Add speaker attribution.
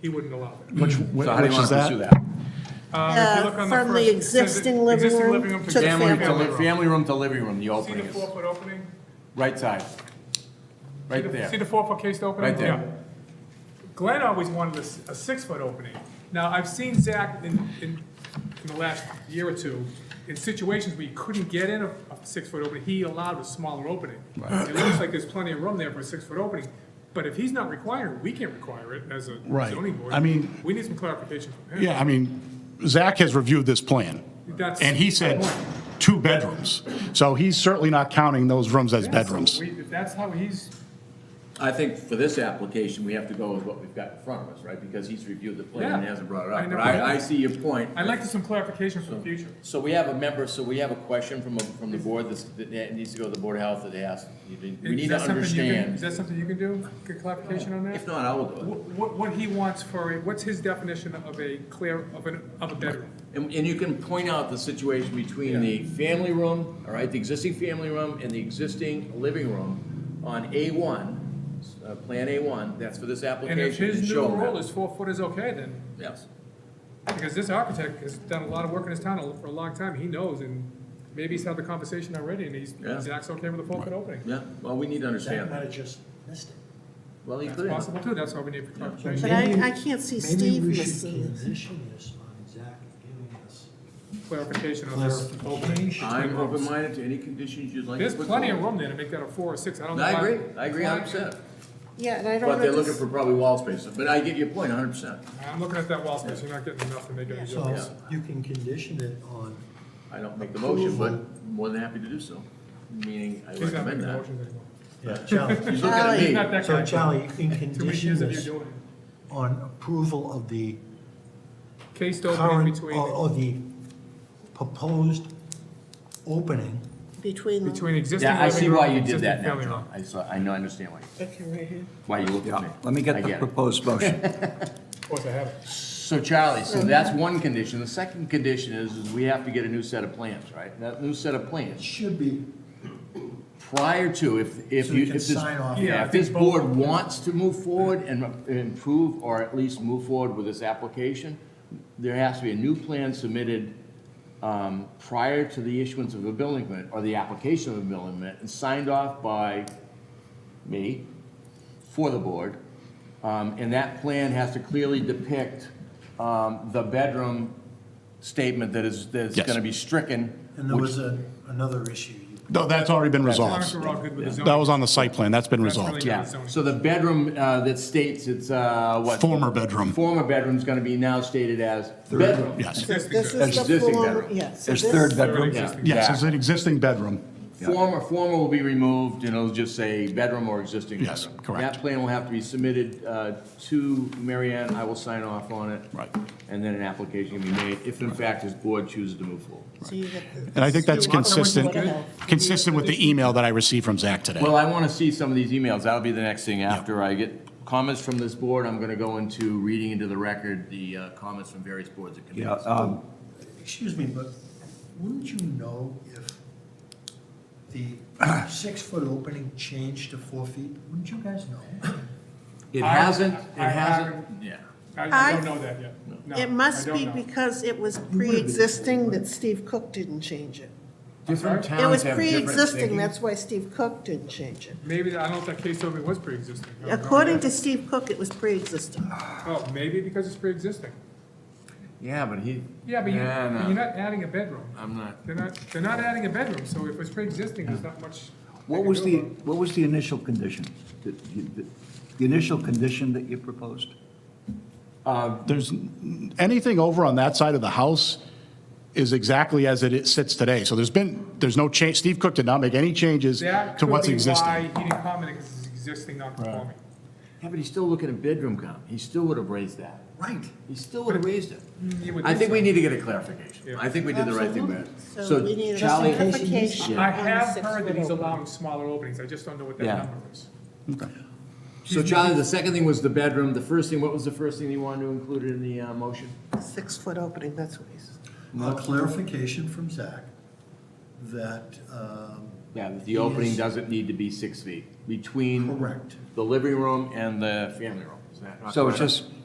Speaker 1: he wouldn't allow that.
Speaker 2: Which,
Speaker 3: So how do you
Speaker 2: which
Speaker 3: want
Speaker 2: is
Speaker 3: to pursue
Speaker 2: that?
Speaker 3: that?
Speaker 1: Um, if you look on
Speaker 4: Uh, from the
Speaker 1: first- it says
Speaker 4: existing living room to the
Speaker 3: Family, to
Speaker 4: family
Speaker 3: li- family room to living room, the
Speaker 1: See
Speaker 3: opening
Speaker 1: the
Speaker 3: is,
Speaker 1: four-foot opening?
Speaker 3: right side.
Speaker 1: See
Speaker 3: Right
Speaker 1: the- See the
Speaker 3: there.
Speaker 1: four-foot cased opening?
Speaker 3: Right there.
Speaker 1: Yeah. Glenn always wanted a, s- a six-foot opening. Now, I've seen Zach in, in, in the last year or two, in situations where he couldn't get in a, a six-foot opening, he allowed a smaller opening. It looks like there's plenty of room there for a six-foot opening, but if he's not requiring, it, we can't require it as a
Speaker 2: Right.
Speaker 1: zoning board.
Speaker 2: I mean-
Speaker 1: We need some clarification from him.
Speaker 2: Yeah, I mean, Zach has reviewed this plan,
Speaker 1: That's-
Speaker 2: and he said two bedrooms. So he's certainly not counting those rooms as
Speaker 1: Yeah, so
Speaker 2: bedrooms.
Speaker 1: we- If that's how he's,
Speaker 3: I think for this application, we have to go with what we've got in front of us, right? Because he's reviewed the plan and
Speaker 1: Yeah.
Speaker 3: hasn't brought it
Speaker 1: I
Speaker 3: up.
Speaker 1: know.
Speaker 3: But I, I see your point.
Speaker 1: I'd like some clarification for the future.
Speaker 3: So we have a member, so we have a question from, a- from the board that's- that needs to go to the Board of Health that they asked. you didn't- We
Speaker 1: Is
Speaker 3: need to
Speaker 1: that something you can- Is
Speaker 3: understand.
Speaker 1: that something you can do, get clarification on that?
Speaker 3: If not, I will do it.
Speaker 1: What, what he wants for, a what's his definition of a clear, of an, of a bedroom?
Speaker 3: And, and you can point out the situation between the family room, all right, the existing family room and the existing living room on A1, uh, Plan A1, that's for this
Speaker 1: And
Speaker 3: application.
Speaker 1: if his new
Speaker 3: show them.
Speaker 1: rule is four foot is okay, then,
Speaker 3: Yes.
Speaker 1: because this architect has done a lot of work in his town for a long time, he knows, and maybe he's had the conversation already, and he's,
Speaker 3: Yeah.
Speaker 1: Zach's okay with a four foot opening.
Speaker 3: Yeah, well, we need to
Speaker 5: Zach
Speaker 3: understand
Speaker 5: might
Speaker 3: that.
Speaker 5: have just missed it.
Speaker 3: Well, you
Speaker 1: That's
Speaker 3: could.
Speaker 1: possible too, that's why we need clarification.
Speaker 4: But I, I can't see Steve
Speaker 5: Maybe we should
Speaker 4: missing this.
Speaker 5: condition this on Zach giving us
Speaker 1: clarification on this opening.
Speaker 5: clarification.
Speaker 3: I'm open-minded to any conditions you'd like. to
Speaker 1: There's
Speaker 3: put
Speaker 1: plenty of
Speaker 3: forward.
Speaker 1: room there to make that a four or six, I don't know.
Speaker 3: I
Speaker 1: why-
Speaker 3: agree, I agree hundred percent.
Speaker 4: Yeah, and I don't
Speaker 3: But they're
Speaker 4: know,
Speaker 3: looking
Speaker 4: this-
Speaker 3: for probably wall spaces, but I get your point hundred percent.
Speaker 1: I'm looking at that wall space, you're not getting enough to make any difference.
Speaker 5: So you can condition it on,
Speaker 3: I don't make the motion, but more than happy to do so, meaning I
Speaker 1: He's not
Speaker 3: recommend
Speaker 1: making
Speaker 3: that.
Speaker 1: motions anymore.
Speaker 5: yeah, Charlie.
Speaker 3: He's looking at
Speaker 1: He's
Speaker 3: me.
Speaker 1: not that
Speaker 5: So
Speaker 1: guy.
Speaker 5: Charlie, you can
Speaker 1: Too many
Speaker 5: condition
Speaker 1: years of you
Speaker 5: this
Speaker 1: doing it.
Speaker 5: on approval of the
Speaker 1: Case opening
Speaker 5: current,
Speaker 1: between.
Speaker 5: or, or the proposed opening.
Speaker 4: between them.
Speaker 1: Between existing
Speaker 3: Yeah, I see
Speaker 1: living room
Speaker 3: why
Speaker 1: and
Speaker 3: you did
Speaker 1: existing
Speaker 3: that now,
Speaker 1: family room.
Speaker 3: John. I saw, I know, I understand why,
Speaker 4: Okay, right here.
Speaker 3: why you looked at me.
Speaker 6: Yeah, let me
Speaker 3: I
Speaker 6: get the
Speaker 3: get it.
Speaker 6: proposed motion.
Speaker 1: Of course I have it.
Speaker 3: So Charlie, so that's one condition. The second condition is, is we have to get a new set of plans, right? That new set of plans,
Speaker 5: Should be.
Speaker 3: prior to, if, if
Speaker 5: So
Speaker 3: you,
Speaker 5: we
Speaker 3: if
Speaker 5: can
Speaker 3: this.
Speaker 5: sign off.
Speaker 1: Yeah, I
Speaker 3: Yeah, if this
Speaker 1: think both-
Speaker 3: board wants to move forward and improve, or at least move forward with this application, there has to be a new plan submitted, um, prior to the issuance of a building permit, or the application of a building permit, and signed off by me, for the board. Um, And that plan has to clearly depict um, the bedroom statement that is, that's
Speaker 2: Yes.
Speaker 3: going to be stricken.
Speaker 5: And there
Speaker 3: which-
Speaker 5: was a, another issue you
Speaker 2: No, that's already been
Speaker 1: As long as
Speaker 2: resolved.
Speaker 1: we're all good with the zoning.
Speaker 2: That was on the site plan, that's been
Speaker 1: That's
Speaker 2: resolved.
Speaker 1: really-
Speaker 3: Yeah, so the bedroom uh, that states it's, uh, what?
Speaker 2: Former bedroom.
Speaker 3: Former bedroom's going to be now stated as bedroom.
Speaker 2: Yes,
Speaker 1: Existing
Speaker 4: This
Speaker 1: bedroom.
Speaker 4: is the
Speaker 3: Existing
Speaker 4: former,
Speaker 3: bedroom.
Speaker 4: yes.
Speaker 6: There's third
Speaker 1: Already
Speaker 6: bedroom.
Speaker 3: Yeah.
Speaker 1: existing.
Speaker 2: yes, it's an existing bedroom.
Speaker 3: Former, former will be removed, and it'll just say bedroom or existing bedroom.
Speaker 2: Yes, correct.
Speaker 3: That plan will have to be submitted uh, to Mary Ann, I will sign off on it.
Speaker 2: Right.
Speaker 3: And then an application can be made, if in fact this board chooses to move forward.
Speaker 4: So you get the-
Speaker 2: And I think that's consistent,
Speaker 4: Whatever.
Speaker 2: consistent with the email that I received from Zach today.
Speaker 3: Well, I want to see some of these emails, that'll be the next thing, after I get comments from this board, I'm going to go into reading into the record the uh, comments from various boards and
Speaker 6: Yeah,
Speaker 3: committees.
Speaker 4: uh,
Speaker 6: um,
Speaker 5: Excuse me, but wouldn't you know if the six-foot opening changed to four feet? Wouldn't you guys know?
Speaker 3: It
Speaker 1: I-
Speaker 3: hasn't, it
Speaker 1: I- I-
Speaker 3: hasn't, yeah.
Speaker 1: I I don't
Speaker 4: I-
Speaker 1: know that yet. No,
Speaker 4: It must
Speaker 1: I don't
Speaker 4: be
Speaker 1: know.
Speaker 4: because it was pre-existing that Steve Cook didn't change it.
Speaker 3: Different towns
Speaker 4: It
Speaker 3: have
Speaker 4: was
Speaker 3: different
Speaker 4: pre-existing,
Speaker 3: thinking.
Speaker 4: that's why Steve Cook didn't change it.
Speaker 1: Maybe, I don't know if that case opening was pre-existing. I don't know
Speaker 4: According
Speaker 1: yet.
Speaker 4: to Steve Cook, it was pre-existing.
Speaker 1: Oh, maybe because it's pre-existing.
Speaker 3: Yeah, but he.
Speaker 1: Yeah, but you,
Speaker 3: Nah, nah,
Speaker 1: but you're not adding a bedroom.
Speaker 3: I'm not.
Speaker 1: They're not, they're not adding a bedroom, so if it's pre-existing, there's not much. they
Speaker 6: what
Speaker 1: can
Speaker 6: was
Speaker 1: do
Speaker 6: the,
Speaker 1: about it.
Speaker 6: what was the initial condition? that you- that- The initial condition that you proposed?
Speaker 2: There's, anything over on that side of the house is exactly as it is- sits today. So there's been, there's no change, Steve Cook did not make any changes
Speaker 1: That
Speaker 2: to
Speaker 1: could
Speaker 2: what's
Speaker 1: be why
Speaker 2: existing.
Speaker 1: he didn't comment, because it's existing non-conforming.
Speaker 3: Yeah, but he's still looking at bedroom count. He still would have raised that.
Speaker 5: Right.
Speaker 3: He still would have raised it.
Speaker 1: You would
Speaker 3: I
Speaker 1: think
Speaker 3: think
Speaker 1: so.
Speaker 3: we need to get a clarification. I think we did the right thing there.
Speaker 4: So we need a
Speaker 3: Charlie-
Speaker 4: clarification
Speaker 1: I
Speaker 4: on the
Speaker 1: have heard that
Speaker 4: six-foot
Speaker 1: he's
Speaker 4: opening.
Speaker 1: allowing smaller openings, I just don't know what that
Speaker 3: Yeah.
Speaker 1: number is.
Speaker 3: So Charlie, the second thing was the bedroom. The first thing, what was the first thing you wanted to include in the uh, motion?
Speaker 4: Six-foot opening, that's what he's,
Speaker 5: A clarification from Zach that, um,
Speaker 3: Yeah, that the opening
Speaker 5: Yes.
Speaker 3: doesn't need to be six feet between
Speaker 5: correct.
Speaker 3: Mm. the living room and the family room. Is that not
Speaker 6: So it's
Speaker 3: correct?
Speaker 6: just